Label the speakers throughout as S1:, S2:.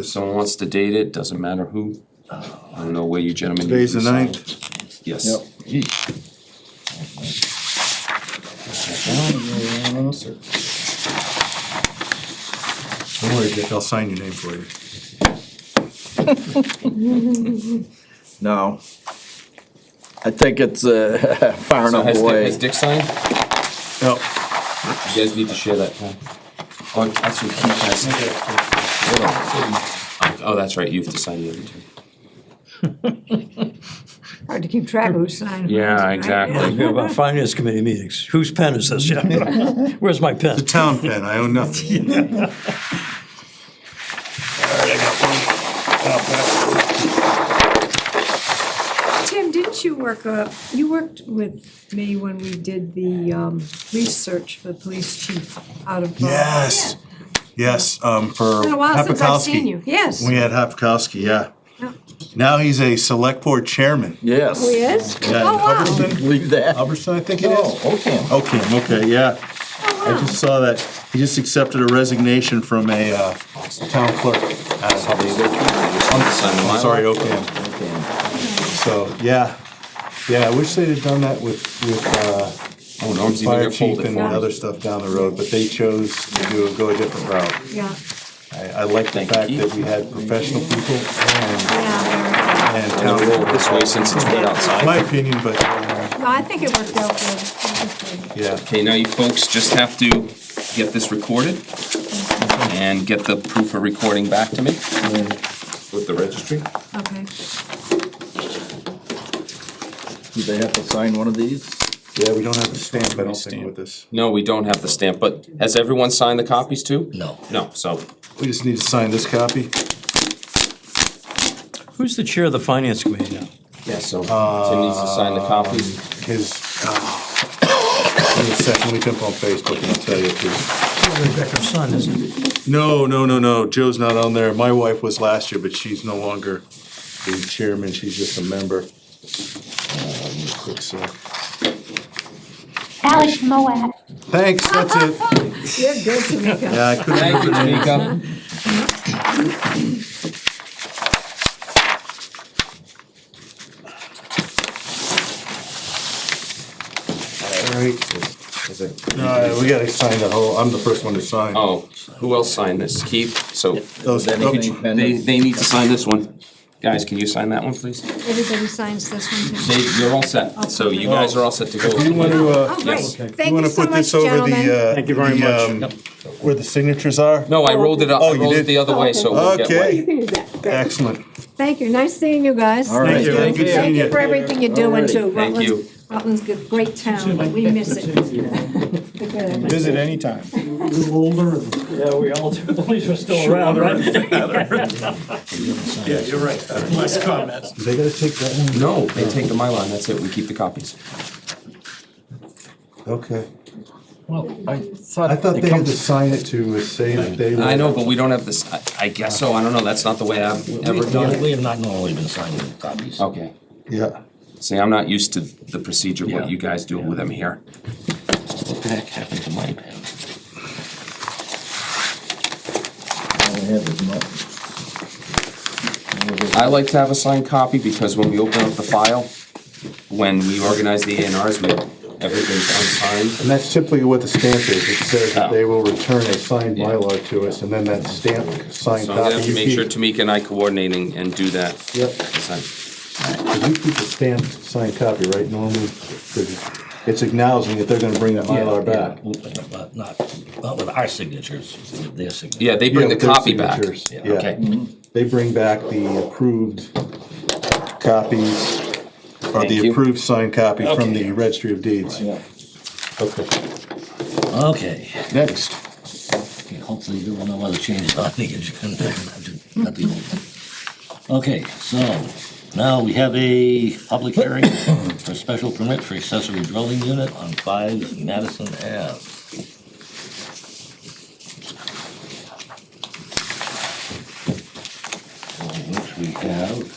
S1: If someone wants to date it, doesn't matter who. uh, I don't know where you gentlemen.
S2: Today's the
S1: usually sign.
S2: ninth.
S1: Yes.
S2: Don't worry, Dick, I'll sign your name for you.
S3: No. I think it's uh, far
S1: So
S3: enough
S1: has Dick, has
S3: away.
S1: Dick signed?
S2: Yep.
S1: You guys need to share that. huh? Oh, actually, he has. Hold on. Oh, that's right, you have to sign the other two.
S4: Hard to keep track of who's signing.
S1: Yeah, exactly.
S5: Yeah, about finance committee meetings. Whose pen is this? Yeah. Where's my pen?
S2: The town pen, I own nothing.
S4: Tim, didn't you work, uh, you worked with me when we did the um, research for the police chief out of. uh,
S2: Yes, yes, um, for
S4: It's Been a while since I've seen
S2: Hapikowski.
S4: you, yes.
S2: We had Hapikowski, yeah.
S4: Yeah.
S2: Now he's a select board chairman.
S3: Yes.
S4: Oh, he is?
S2: Yeah,
S4: Oh, wow,
S2: Hubbardston,
S3: Leave that.
S2: Hubbardston, I think it
S3: Oh,
S2: is.
S3: okay.
S2: Okay, okay, yeah. I
S4: oh,
S2: just saw that. He just accepted a resignation from a, uh, town clerk. out of Hubbardston.
S1: I'm
S2: I'm sorry, Oakham.
S3: Okay.
S2: So, yeah. Yeah, I wish they'd have done that with, with, uh,
S1: Oh, Norm's even
S2: fire
S1: gonna
S2: chief
S1: fold it
S2: and
S1: for
S2: other
S1: me.
S2: stuff down the road, but they chose to do, go a different route.
S4: yeah,
S2: I, I like the
S1: Thank you,
S2: fact
S1: Keith.
S2: that we had professional people and,
S4: yeah.
S2: and
S1: I'm
S2: town
S1: gonna roll it this
S2: people.
S1: way since it's wet outside.
S2: My opinion, but, uh,
S4: No, I think it worked out good. It was good.
S2: yeah,
S1: Okay, now you folks just have to get this recorded and get the proof of recording back to me with the registry.
S4: Okay,
S3: Do they have to sign one of these?
S2: yeah, we don't have a stamp, I don't think, with this.
S1: No, we don't have the stamp, but has everyone signed the copies too?
S3: No.
S1: No, so
S2: We just need to sign this copy.
S5: Who's the chair of the finance committee now?
S1: Yeah, so Tim needs to sign the copies.
S2: His, uh, in a second, we jump on Facebook and I'll tell you. if
S5: Rebecca's son, isn't it?
S2: he- No, no, no, no, Joe's not on there. My wife was last year, but she's no longer the chairman, she's just a member. Uh, real Quick, so,
S6: Alex Moab.
S2: thanks, that's it.
S4: you're good, Tamika.
S2: Yeah, I couldn't
S1: Thank you, Tamika.
S2: No, we gotta sign the whole, I'm the first one to sign.
S1: Oh, who else signed this? Keith, so
S2: Those-
S3: Then
S2: oh,
S3: he can pen
S1: they,
S3: it.
S1: they need to sign this one. Guys, can you sign that one, please?
S4: Everybody signs this one too.
S1: They, you're all set, so you guys are all set to
S2: Do you
S1: go.
S2: wanna,
S4: Oh,
S2: uh,
S4: great,
S1: yes.
S2: you
S4: thank you
S2: wanna
S4: so
S2: put
S4: much,
S2: this over
S4: gentlemen.
S2: the, uh?
S5: Thank you very
S2: the,
S5: much.
S2: um, Where the signatures are?
S1: No, I rolled it up,
S2: Oh,
S1: I
S2: you
S1: rolled it
S2: did?
S1: the other way, so we'll get one.
S2: Okay,
S4: can do that. Great.
S2: excellent.
S4: Thank you, nice seeing you guys.
S3: All right.
S2: Thank you,
S3: Thank
S2: good
S3: you.
S2: seeing
S4: Thank you for
S2: you.
S4: everything you're doing too.
S1: Thank you.
S4: Rutland's- Rutland's a great town, but we miss it.
S2: Visit anytime.
S5: Older. Yeah, we all do. At least we're still around, right?
S2: Yeah, you're right. Less comments. They gotta take that one?
S1: No, they take the Mylar, and that's it, we keep the copies.
S2: Okay.
S3: Well, I
S2: I
S3: thought
S2: thought
S3: it
S2: they had to
S3: comes,
S2: sign it to uh, say that they. were-
S1: I know, but we don't have this, I- I guess so, I don't know, that's not the way I've ever done it.
S7: We have not normally been signing copies.
S1: Okay,
S2: Yeah.
S1: see, I'm not used to the procedure,
S7: Yeah.
S1: what you guys do with them here.
S7: What the heck happened to my pen?
S3: all I have is mine.
S1: I like to have a signed copy because when we open up the file, when we organize the A and Rs, we, everything's unsigned.
S2: And that's typically what the stamp is. It says that
S1: Oh.
S2: they will return a signed
S1: Yeah.
S2: Mylar to us and then that stamp, signed
S1: So I'm gonna
S2: copy.
S1: have to
S2: you
S1: make sure
S2: keep-
S1: Tamika and I coordinating and do that.
S2: Yep.
S1: Sign.
S2: If You keep the stamped, signed copy, right, normally, it's acknowledging that they're gonna bring that Mylar back.
S7: Yeah, But not, not with our signatures, with their signatures.
S1: Yeah, they bring
S2: Yeah,
S1: the
S2: with their
S1: copy back.
S2: signatures,
S7: Yeah,
S2: yeah. Mm-hmm.
S1: Okay,
S2: They bring back the approved copies, or
S1: Thank you.
S2: the approved signed copy from
S7: Okay.
S2: the registry of deeds. Okay,
S7: Okay,
S2: next.
S7: Okay, hopefully there were no other changes on the agenda. Not the old one. Okay, so now we have a public hearing for special permit for accessory dwelling unit on five Madison Ave. Which we have.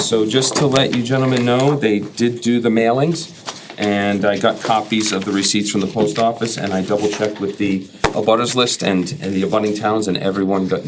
S1: so just to let you gentlemen know, they did do the mailings, and I got copies of the receipts from the post office, and I double checked with the abutters list and, and the abutting towns, and everyone got